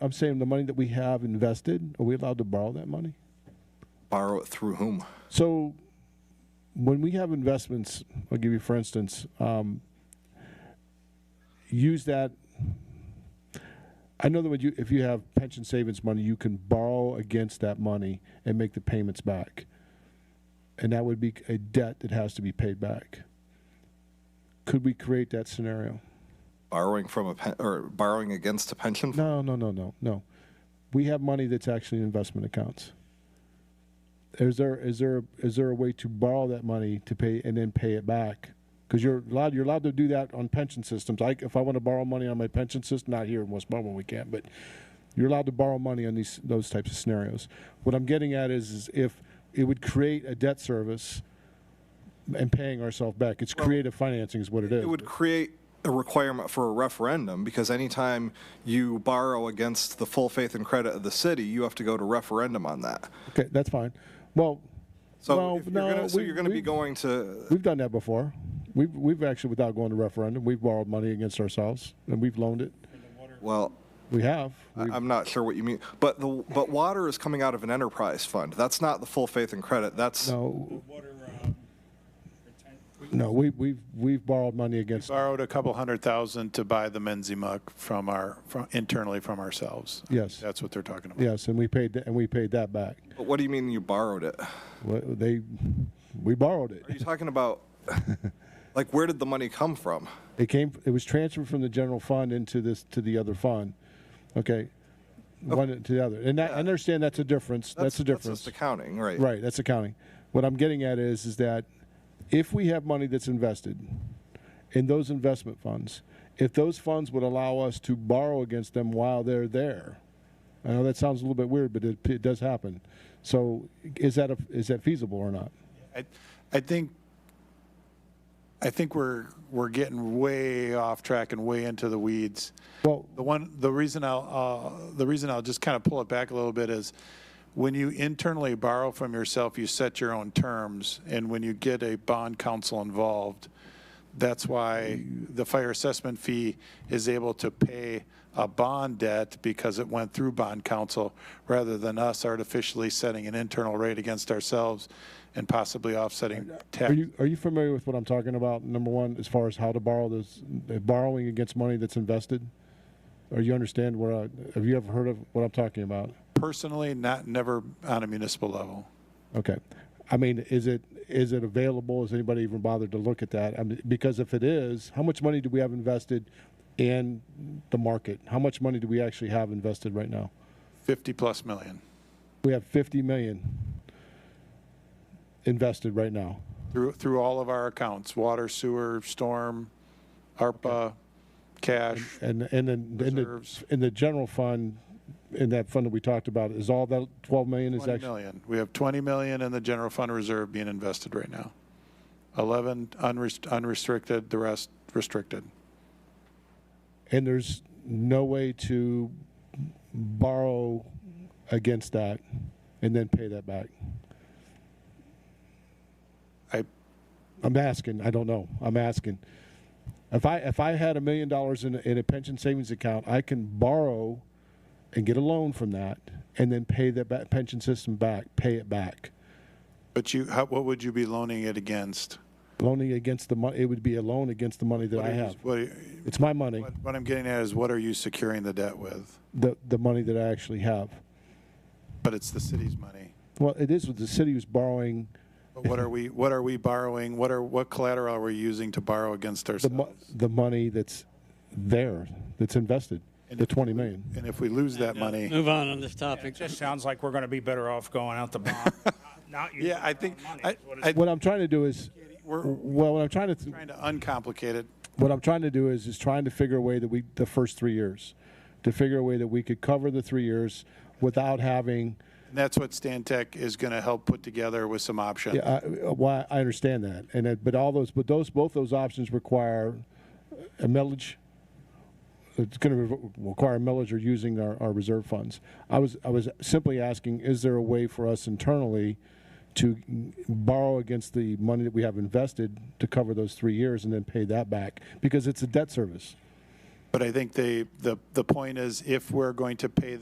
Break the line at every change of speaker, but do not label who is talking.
I'm saying the money that we have invested, are we allowed to borrow that money?
Borrow it through whom?
So when we have investments, I'll give you for instance, um, use that. I know that when you, if you have pension savings money, you can borrow against that money and make the payments back. And that would be a debt that has to be paid back. Could we create that scenario?
Borrowing from a pen, or borrowing against a pension? fund?
No, no, no, no, no. We have money that's actually in investment accounts. Is there is there is there a way to borrow that money to pay and then pay it back? Because you're allowed you're allowed to do that on pension systems. Like if I want to borrow money on my pension system, not here in West Baldwin, we can't. But you're allowed to borrow money on these those types of scenarios. What I'm getting at is, is if it would create a debt service and paying ourselves back. It's creative financing is what it is.
It would create a requirement for a referendum because anytime you borrow against the full faith and credit of the city, you have to go to referendum on that.
okay, that's fine. Well,
So,
well,
if you're gonna, so
we-
you're going to be
we-
going to.
We've done that before. We've, we've actually, without going to referendum, we've borrowed money against ourselves and we've loaned it.
Well,
We have.
I-
We've-
I'm not sure what you mean, but the but water is coming out of an enterprise fund. That's not the full faith and credit. That's
No,
water, um, retain-
no, we, we've, we've borrowed money against,
Borrowed a couple hundred thousand to buy the Menzimuk from our, from internally from ourselves.
Yes.
That's what they're talking about.
yes, and we paid, tha- and we paid that back.
but what do you mean you borrowed it?
Wha- They, we borrowed
Are you
it.
talking about like where did the money come from?
It came, it was transferred from the general fund into this, to the other fund. Okay. One to the other. And that- I understand that's a difference. That's the
Oh. That's
difference.
just accounting, right?
Right, that's accounting. What I'm getting at is, is that if we have money that's invested in those investment funds, if those funds would allow us to borrow against them while they're there, I know that sounds a little bit weird, but it, it does happen. So is that, a, is that feasible or not?
I, I think, I think we're, we're getting way off track and way into the weeds.
Well,
The one, the reason I'll, uh, the reason I'll just kind of pull it back a little bit is when you internally borrow from yourself, you set your own terms. And when you get a bond counsel involved, that's why the fire assessment fee is able to pay a bond debt because it went through bond counsel rather than us artificially setting an internal rate against ourselves and possibly offsetting tax.
are you, are you familiar with what I'm talking about, number one, as far as how to borrow those, uh, borrowing against money that's invested? Or you understand what I, have you ever heard of what I'm talking about?
Personally, not, never on a municipal level.
Okay. I mean, is it, is it available? Has anybody even bothered to look at that? I mean, because if it is, how much money do we have invested in the market? How much money do we actually have invested right now?
50-plus million
We have 50 million invested right now.
through, through all of our accounts, water, sewer, storm, ARPA, cash.
And, and then, in the,
Reserves.
in the general fund, in that fund that we talked about, is all that 12 million is
20
actually?
million. We have 20 million in the general fund reserve being invested right now. 11 unrest- unrestricted, the rest restricted.
And there's no way to borrow against that and then pay that back?
I,
I'm asking. I don't know. I'm asking. If I if I had a million dollars in a, in a pension savings account, I can borrow and get a loan from that, and then pay that ba- pension system back. Pay it back.
but you, how, what would you be loaning it against?
Loaning against the money, it would be a loan against the money that
What
I
are you-
have.
What, are you-
It's my money,
what- what I'm getting at is what are you securing the debt with?
the the money that I actually have.
But it's the city's money.
Well, it is with the city who's borrowing
But what are we, what are we borrowing? What are, what collateral are we using to borrow against
the mo-
ourselves?
the money that's there that's invested, the twenty million.
And if we lose that
Yeah,
money.
Move on on this
It
topic.
just sounds like we're going to be better off going out the bond, not using
Yeah,
our
I
own
think,
money,
I,
is what it's-
I,
What I'm trying to do is,
we're
well, what I'm trying to th-
trying to uncomplicate it.
what I'm trying to do is is trying to figure a way that we the first three years, to figure a way that we could cover the three years without having.
And that's what Stan Tech is going to help put together with some options.
Yeah, I, why I understand that, and that, but all those, but those both those options require a millage. It's going to re- require a millage or using our, our reserve funds. I was I was simply asking, is there a way for us internally? To borrow against the money that we have invested to cover those three years and then pay that back because it's a debt service.
But I think they, the, the point is if we're going to pay